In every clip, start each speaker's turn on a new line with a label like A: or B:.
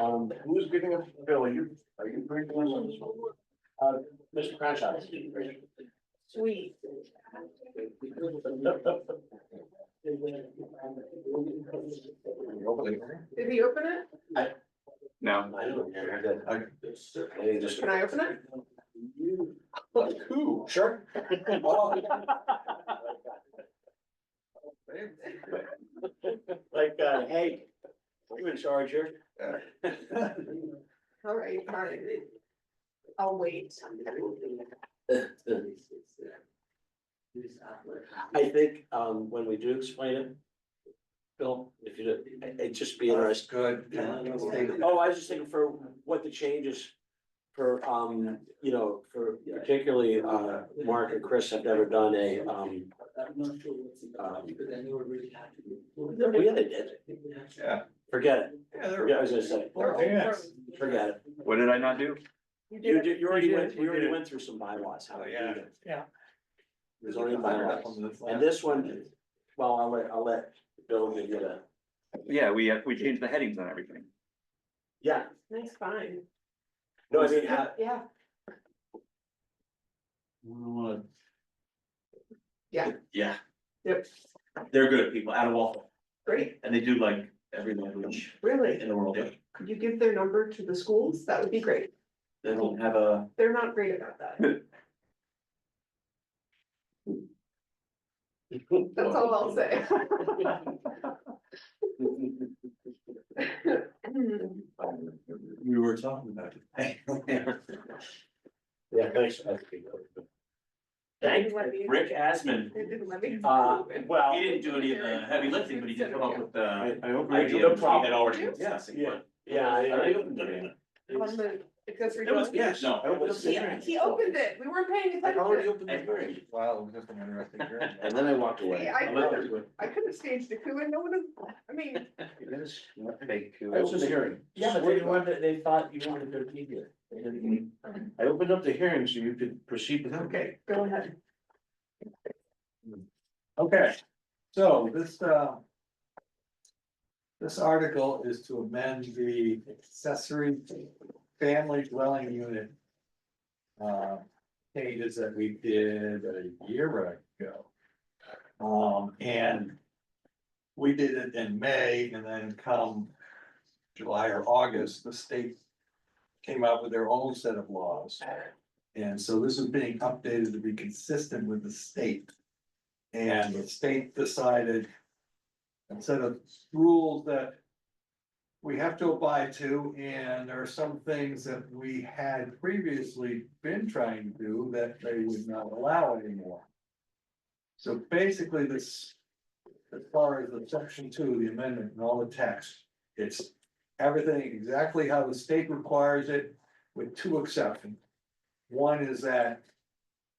A: Um, who's giving us the bill? Are you, are you bringing on this one? Uh, Mr. Crenshaw.
B: Sweet. Did he open it?
C: No,
B: Can I open it?
A: Look, who? Sure. Like, uh, hey, you in charge here?
B: All right, all right. I'll wait.
A: I think, um, when we do explain it. Bill, if you, do- it- it'd just be interesting.
D: Good.
A: Oh, I was just thinking for what the changes for, um, you know, for particularly, uh, Mark and Chris have never done a, um.
D: I'm not sure what's in
A: um,
D: uh, because I never really had to.
A: Yeah, they did.
D: Yeah.
A: Forget it.
D: Yeah, they're.
A: Yeah, I was gonna say, forget it.
C: what did I not do?
A: You did, you already
E: You
A: went,
E: did,
A: we
E: you
A: already
E: did.
A: went through some bylaws, how to
D: Oh,
A: do
D: yeah.
A: that.
E: Yeah.
A: There's only bylaws. And this one, well, I'll let, I'll let Bill give you that.
C: Yeah, we, uh, we changed the headings on everything.
A: Yeah,
B: That's fine.
A: no, I mean, how,
B: Yeah,
F: Yeah.
B: Yep.
F: They're good people out of Waltham
B: great,
F: and they do like every language
B: really.
F: in the world.
B: Could you give their number to the schools? That would be great.
F: They don't have a,
B: They're not great about that. That's all I'll say.
F: we were talking about it.
A: yeah, thanks.
F: Thank Rick Asman.
B: They didn't let me-
A: Uh, well,
F: He didn't do any of the heavy lifting, but he did come up with the
A: I, I hope.
F: idea
A: No
F: of what we
A: problem.
F: had already discussed.
A: Yeah, yeah, I- I opened it.
B: On the- It goes.
F: It was, yes, no.
A: I opened the
B: Yeah,
A: hearing.
B: He opened it. We weren't paying
A: I already
B: attention.
A: opened the hearing.
D: Wow, just an interesting journey.
A: And then I walked away.
B: See, I
A: I'm out.
B: I could have staged a coup and no one, would- I mean,
A: I opened the hearing.
E: Yeah, but
A: Swear
E: they
A: to
E: wanted, they thought you wanted to be there. They didn't-
A: God. I opened up the hearing so you could proceed with, okay.
B: go ahead.
D: Okay, so this, uh. This article is to amend the accessory family dwelling unit. Uh, changes that we did a year ago. Um, and. We did it in May and then come July or August, the state. Came out with their own set of laws. And so this is being updated to be consistent with the state. And the state decided. Instead of rules that. We have to abide to, and there are some things that we had previously been trying to do that they would not allow anymore. So basically, this. As far as the section two, the amendment and all the text, it's everything exactly how the state requires it with two exceptions. One is that.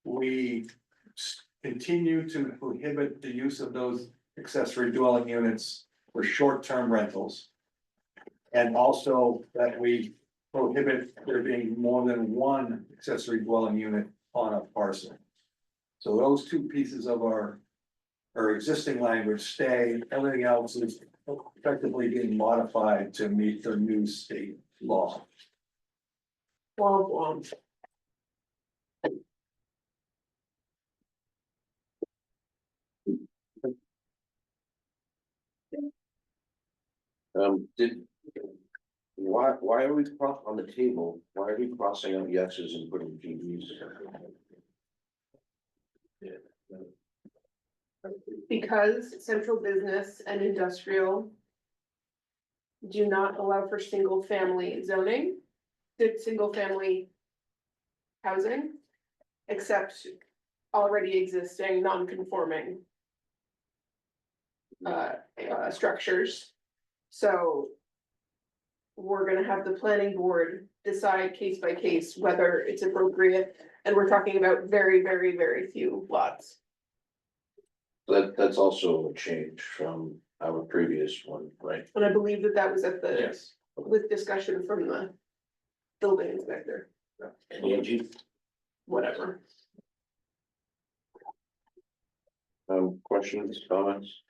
D: We s- continue to prohibit the use of those accessory dwelling units for short-term rentals. And also that we prohibit there being more than one accessory dwelling unit on a parcel. So those two pieces of our, our existing language stay, everything else is effectively being modified to meet the new state law.
B: Womp womp.
G: Um, did, why, why are we cross on the table? Why are we crossing out yeses and putting GBs?
B: Because central business and industrial. Do not allow for single family zoning, the single family. Housing. Except already existing non-conforming. Uh, uh, structures. So. We're gonna have the planning board decide case by case whether it's appropriate, and we're talking about very, very, very few lots.
G: That, that's also a change from our previous one, right?
B: And I believe that that was at the,
G: Yes.
B: with discussion from the building inspector,
G: Angie,
B: whatever.
G: um, questions, comments?